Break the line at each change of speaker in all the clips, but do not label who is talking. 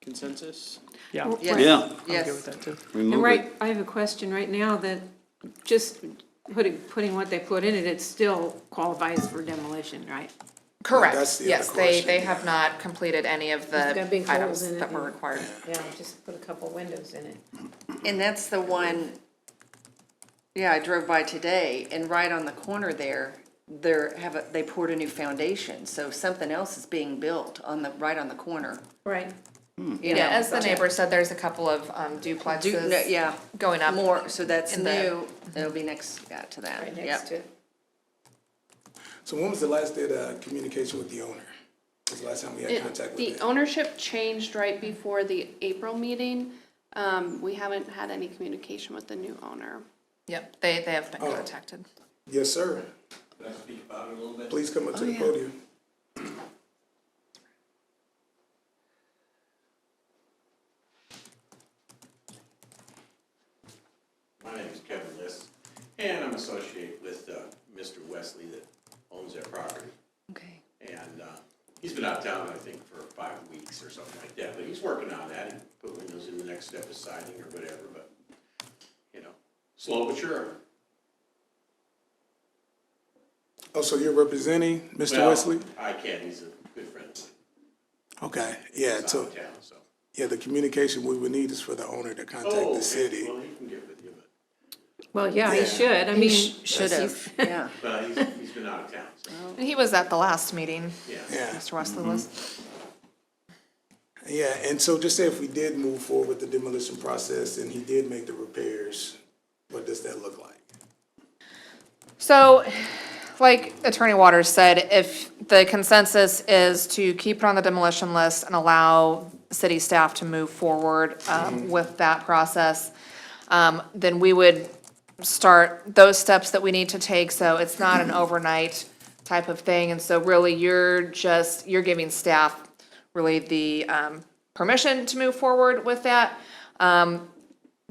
consensus?
Yeah. I'm
Yes.
Yeah.
okay with
Yes,
that too.
Remove
And
it.
right, I have a question right now that just putting, putting what they put in it, it still qualifies for demolition, right?
correct,
That's the other
yes, they,
question,
they have not completed any of
It's
the
got big holes
items
in it
that were
and-
required.
Yeah, just put a couple windows in it.
And that's the one, yeah, I drove by today, and right on the corner there, there have, a- they poured a new foundation, so something else is being built on the, right on the corner.
Right.
you
Yeah,
know.
as the neighbor said, there's a couple of um,
Do- no,
duplexes.
Yeah.
going up
More, so that's
in the- Mhm.
new, it'll be next, yeah, to that,
Right
yep.
next to it.
So when was the last day the communication with the owner? Was the last time we had contact
The
with them?
ownership changed right before the April meeting. Um, we haven't had any communication with the new owner.
Yep, they, they have been contacted.
Yes, sir.
Can I speak about it a little bit?
Please come up to the podium.
My name is Kevin List, and I'm associated with uh, Mr. Wesley that owns that property.
Okay.
And uh, he's been out of town, I think, for five weeks or something like that, but he's working on that. and Put windows in, the next step is siding or whatever, but, you know, slow but sure.
Oh, so you're representing Mr.
Well,
Wesley?
I can, he's a good friend. of mine.
Okay, yeah,
He's out
so,
of town, so.
yeah, the communication we would need is for the owner to
Oh,
contact
okay.
the city.
Well, he can get with you, but,
Well, yeah, he should, I mean.
Should have, yeah.
but he's, he's been out of town, so,
He was at the last meeting,
yeah.
Yeah,
Mr. Wesley was.
yeah, and so just say if we did move forward with the demolition process and he did make the repairs, what does that look like?
So, like Attorney Waters said, if the consensus is to keep it on the demolition list and allow city staff to move forward um, with that process, um, then we would start those steps that we need to take, so it's not an overnight type of thing. And so really, you're just, you're giving staff really the um, permission to move forward with that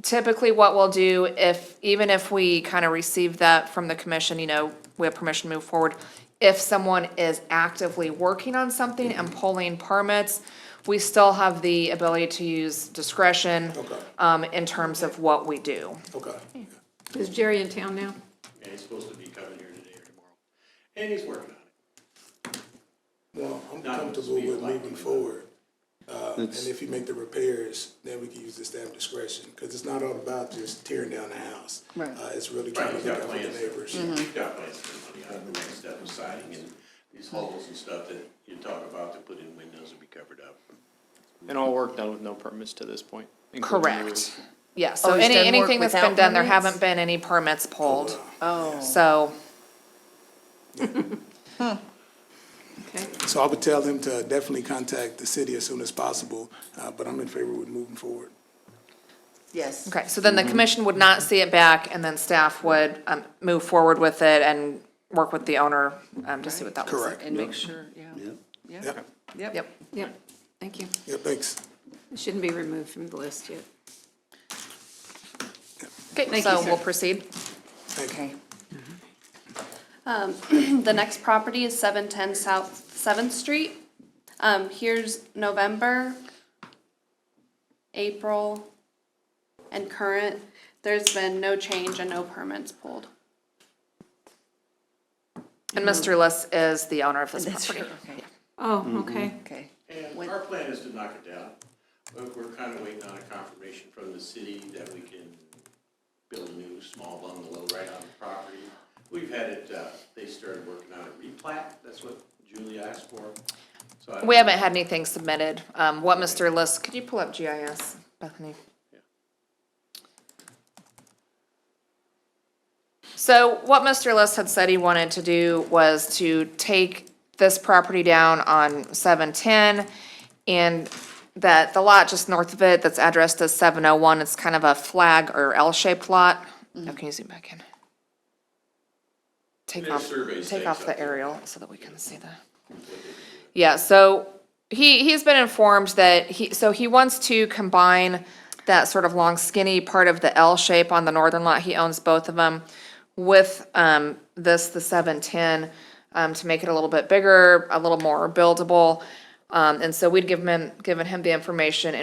typically what we'll do if, even if we kind of receive that from the commission, you know, we have permission to move forward. If someone is actively working on something and
Mm-hmm.
pulling permits, we still have the ability to use discretion um, in terms of what we do.
Okay,
Is Jerry in town now?
And he's supposed to be coming here today or tomorrow, and he's working on it.
well, I'm
Not
comfortable
speed
with
lightning,
moving
but- uh,
forward. Uh, And if you make the repairs, then we can use the staff discretion, because it's not all about just tearing down the house.
Right.
Uh, it's really
Right,
trying
he's
to look
got
out for
plans,
the neighbors.
he's got plans for money out of the next step of siding and these holes and stuff that you talk about to put in windows and be covered up.
And all work done with no permits to this point. including the roof.
Correct. Yeah, so
Oh, he's
any,
done work
anything that's been
without
done, there
permits?
haven't been any permits pulled,
Oh,
so.
Okay.
So I would tell them to definitely contact the city as soon as possible, uh, but I'm in favor with moving forward.
yes.
Okay, so then the
Mm-hmm.
commission would not see it back, and then staff would um, move forward with it and work with the owner um, to see what that looks like.
Correct.
And make sure, yeah,
Yep.
yeah,
Yep,
yep.
Yep.
Yep, thank you.
yeah, thanks.
It Shouldn't be removed from the list yet.
Okay,
Thank
so
you,
we'll
sir.
proceed.
Okay.
The next property is seven ten South Seventh Street. Um, here's November, April, and current. There's been no change and no permits pulled.
And Mr. Liss is the owner of this
Mm-hmm. That's
property.
right, okay,
Oh, okay.
okay.
And our plan is to knock it down, but we're kind of waiting on a confirmation from the city that we can build a new small bungalow right on the property. We've had it, uh, they started working on a replat, that's what Julie asked for. So I-
We haven't had anything submitted. Um, What Mr. Liss, could you pull up GIS, Bethany? So what Mr. Liss had said he wanted to do was to take this property down on seven-ten and that the lot just north of it that's addressed as seven-oh-one, it's kind of a flag or L-shaped lot. Now, can you zoom back in? Take
Their
off,
survey
take
stakes
off
up
the
there.
aerial so that we can see the. Yeah, so he, he's been informed that he, so he wants to combine that sort of long skinny part of the L shape on the northern lot, he owns both of them, with, um, this, the seven-ten, um, to make it a little bit bigger, a little more buildable. Um, and so we'd given him, given him the information